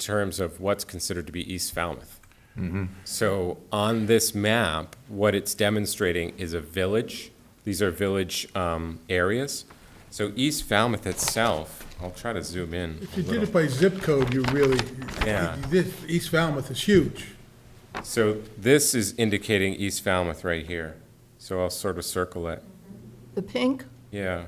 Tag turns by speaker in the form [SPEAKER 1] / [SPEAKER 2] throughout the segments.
[SPEAKER 1] terms of what's considered to be East Falmouth. So on this map, what it's demonstrating is a village. These are village um, areas. So East Falmouth itself, I'll try to zoom in.
[SPEAKER 2] If
[SPEAKER 1] a
[SPEAKER 2] you did
[SPEAKER 1] little.
[SPEAKER 2] it by zip code, you really,
[SPEAKER 1] Yeah.
[SPEAKER 2] this, East Falmouth is huge.
[SPEAKER 1] So this is indicating East Falmouth right here. So I'll sort of circle it.
[SPEAKER 3] The pink?
[SPEAKER 1] Yeah.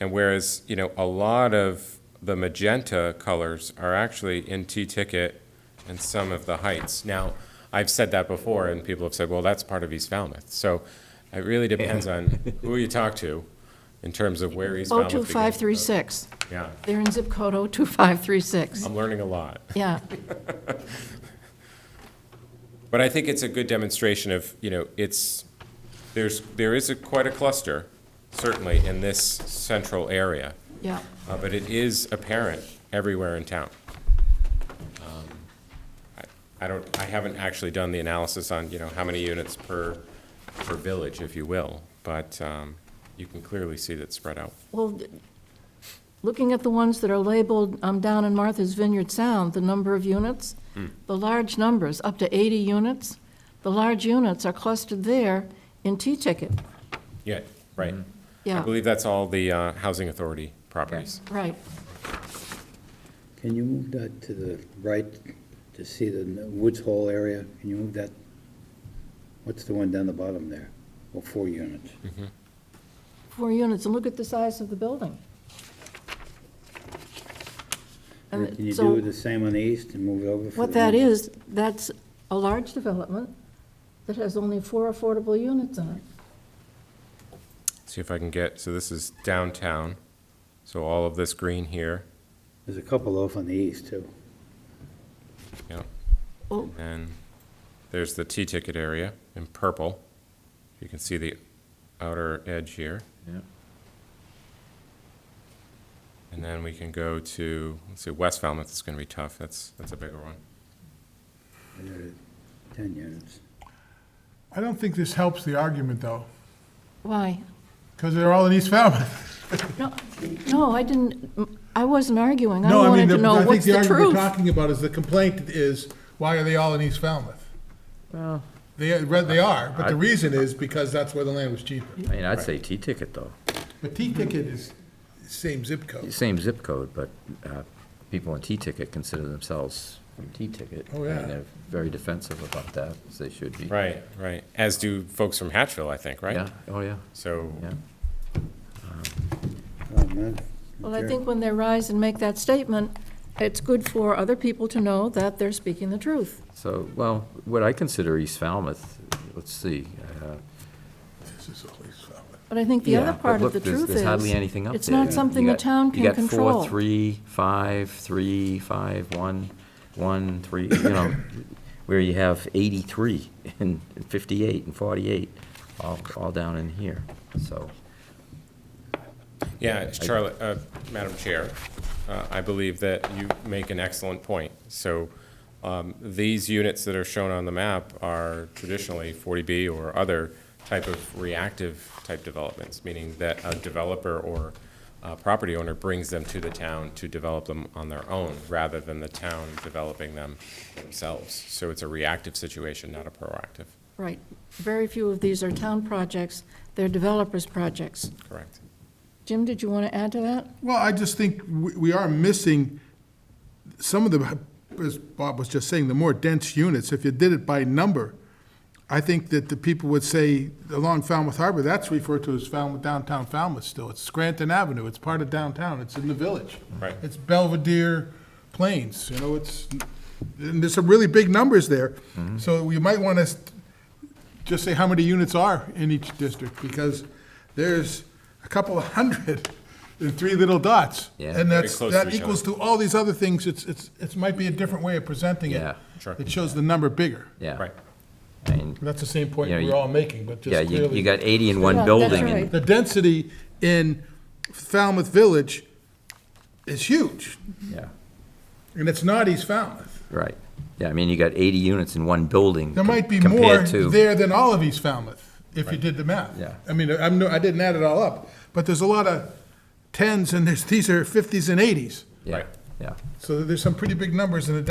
[SPEAKER 1] And whereas, you know, a lot of the magenta colors are actually in T-Ticket and some of the Heights. Now, I've said that before, and people have said, well, that's part of East Falmouth. So it really depends on who you talk to in terms of where East
[SPEAKER 3] Oh,
[SPEAKER 1] Falmouth begins.
[SPEAKER 3] 02536.
[SPEAKER 1] Yeah,
[SPEAKER 3] They're in zip code 02536.
[SPEAKER 1] I'm learning a lot.
[SPEAKER 3] Yeah,
[SPEAKER 1] But I think it's a good demonstration of, you know, it's, there's, there is a quite a cluster, certainly, in this central area.
[SPEAKER 3] yeah.
[SPEAKER 1] Uh, but it is apparent everywhere in town. Um, I- I don't, I haven't actually done the analysis on, you know, how many units per, per village, if you will, but um, you can clearly see that spread out.
[SPEAKER 3] Well, d- looking at the ones that are labeled um, down in Martha's Vineyard Sound, the number of units, the large numbers, up to 80 units, the large units are clustered there in T-ticket.
[SPEAKER 1] Yeah, right. I
[SPEAKER 3] Yeah,
[SPEAKER 1] believe that's all the uh, Housing Authority properties.
[SPEAKER 3] right.
[SPEAKER 4] Can you move that to the right to see the Woods Hole area? Can you move that? What's the one down the bottom there? Well, four units.
[SPEAKER 3] Four units, and look at the size of the building. And
[SPEAKER 4] Can you
[SPEAKER 3] Uh, so-
[SPEAKER 4] do the same on the east and move it over? for
[SPEAKER 3] What
[SPEAKER 4] the
[SPEAKER 3] that
[SPEAKER 4] one-
[SPEAKER 3] is, that's a large development that has only four affordable units in it.
[SPEAKER 1] See if I can get, so this is downtown, so all of this green here,
[SPEAKER 4] There's a couple off on the east, too.
[SPEAKER 1] yeah.
[SPEAKER 3] Oh.
[SPEAKER 1] And there's the T-ticket area in purple. You can see the outer edge here.
[SPEAKER 5] Yeah.
[SPEAKER 1] And then we can go to, let's see, West Falmouth is gonna be tough, that's, that's a bigger one.
[SPEAKER 4] There are Ten units.
[SPEAKER 2] I don't think this helps the argument, though,
[SPEAKER 3] Why?
[SPEAKER 2] because they're all in East Falmouth.
[SPEAKER 3] No, no, I didn't, I wasn't arguing. I
[SPEAKER 2] No, I mean,
[SPEAKER 3] wanted
[SPEAKER 2] the-
[SPEAKER 3] to know
[SPEAKER 2] I think
[SPEAKER 3] what's
[SPEAKER 2] the
[SPEAKER 3] the
[SPEAKER 2] argument we're
[SPEAKER 3] truth.
[SPEAKER 2] talking about is, the complaint is, why are they all in East Falmouth?
[SPEAKER 3] Oh.
[SPEAKER 2] They, they are, but the reason is because that's where the land was cheaper.
[SPEAKER 5] I mean, I'd say T-ticket, though.
[SPEAKER 2] But T-Ticket is same zip code.
[SPEAKER 5] Same zip code, but uh, people in T-ticket consider themselves from T-ticket.
[SPEAKER 2] Oh, yeah.
[SPEAKER 5] And they're very defensive about that, as they should be.
[SPEAKER 1] Right, right, as do folks from Hatchville, I think, right?
[SPEAKER 5] Yeah, oh, yeah,
[SPEAKER 1] So,
[SPEAKER 5] yeah.
[SPEAKER 4] Oh, man.
[SPEAKER 3] Well, I
[SPEAKER 4] Sure.
[SPEAKER 3] think when they rise and make that statement, it's good for other people to know that they're speaking the truth.
[SPEAKER 5] So, well, what I consider East Falmouth, let's see, uh,
[SPEAKER 2] This is all East Falmouth.
[SPEAKER 3] But I think the
[SPEAKER 5] Yeah,
[SPEAKER 3] other
[SPEAKER 5] but
[SPEAKER 3] part of
[SPEAKER 5] look,
[SPEAKER 3] the
[SPEAKER 5] there's-
[SPEAKER 3] truth is.
[SPEAKER 5] There's hardly anything up there.
[SPEAKER 3] It's not
[SPEAKER 5] You
[SPEAKER 3] something the
[SPEAKER 5] got-
[SPEAKER 3] town can
[SPEAKER 5] You got
[SPEAKER 3] control.
[SPEAKER 5] four, three, five, three, five, one, one, three, you know, where you have eighty-three and fifty-eight and forty-eight, all, all down in here, so.
[SPEAKER 1] yeah, Charlotte, uh, Madam Chair, uh, I believe that you make an excellent point. So, um, these units that are shown on the map are traditionally forty B or other type of reactive type developments, meaning that a developer or a property owner brings them to the town to develop them on their own, rather than the town developing them themselves. So it's a reactive situation, not a proactive,
[SPEAKER 3] Right. Very few of these are town projects, they're developers' projects.
[SPEAKER 1] correct?
[SPEAKER 3] Jim, did you want to add to that?
[SPEAKER 2] Well, I just think we we are missing some of the, as Bob was just saying, the more dense units. If you did it by number, I think that the people would say along Falmouth Harbor, that's referred to as Falmouth, downtown Falmouth still. It's Scranton Avenue, it's part of downtown, it's in the village.
[SPEAKER 1] Right.
[SPEAKER 2] It's Belvedere Plains, you know, it's, and there's some really big numbers there. So you might want to just say how many units are in each district, because there's a couple of hundred in three little dots.
[SPEAKER 5] Yeah.
[SPEAKER 2] And that's,
[SPEAKER 1] close to
[SPEAKER 2] that
[SPEAKER 1] each
[SPEAKER 2] equals to all these other things, it's, it's, it might be a different way of presenting it.
[SPEAKER 5] Yeah.
[SPEAKER 1] Sure.
[SPEAKER 2] It shows the number bigger.
[SPEAKER 5] Yeah.
[SPEAKER 1] Right.
[SPEAKER 5] And,
[SPEAKER 2] That's the same point
[SPEAKER 5] Yeah, you-
[SPEAKER 2] we're all making, but
[SPEAKER 5] yeah,
[SPEAKER 2] just
[SPEAKER 5] you, you
[SPEAKER 2] clearly.
[SPEAKER 5] got eighty in
[SPEAKER 3] Yeah,
[SPEAKER 5] one
[SPEAKER 3] that's
[SPEAKER 5] building,
[SPEAKER 3] right.
[SPEAKER 5] and,
[SPEAKER 2] The density in Falmouth Village is huge,
[SPEAKER 5] yeah,
[SPEAKER 2] and it's not East Falmouth.
[SPEAKER 5] right. Yeah, I mean, you got eighty units in one building.
[SPEAKER 2] There
[SPEAKER 5] co-
[SPEAKER 2] might be more
[SPEAKER 5] compared to-
[SPEAKER 2] there than all of East Falmouth, if you did the math.
[SPEAKER 5] Yeah.
[SPEAKER 2] I mean, I'm, no- I didn't add it all up, but there's a lot of tens, and there's, these are fifties and eighties.
[SPEAKER 5] Yeah,
[SPEAKER 1] Right.
[SPEAKER 5] yeah.
[SPEAKER 2] So there's some pretty big numbers in the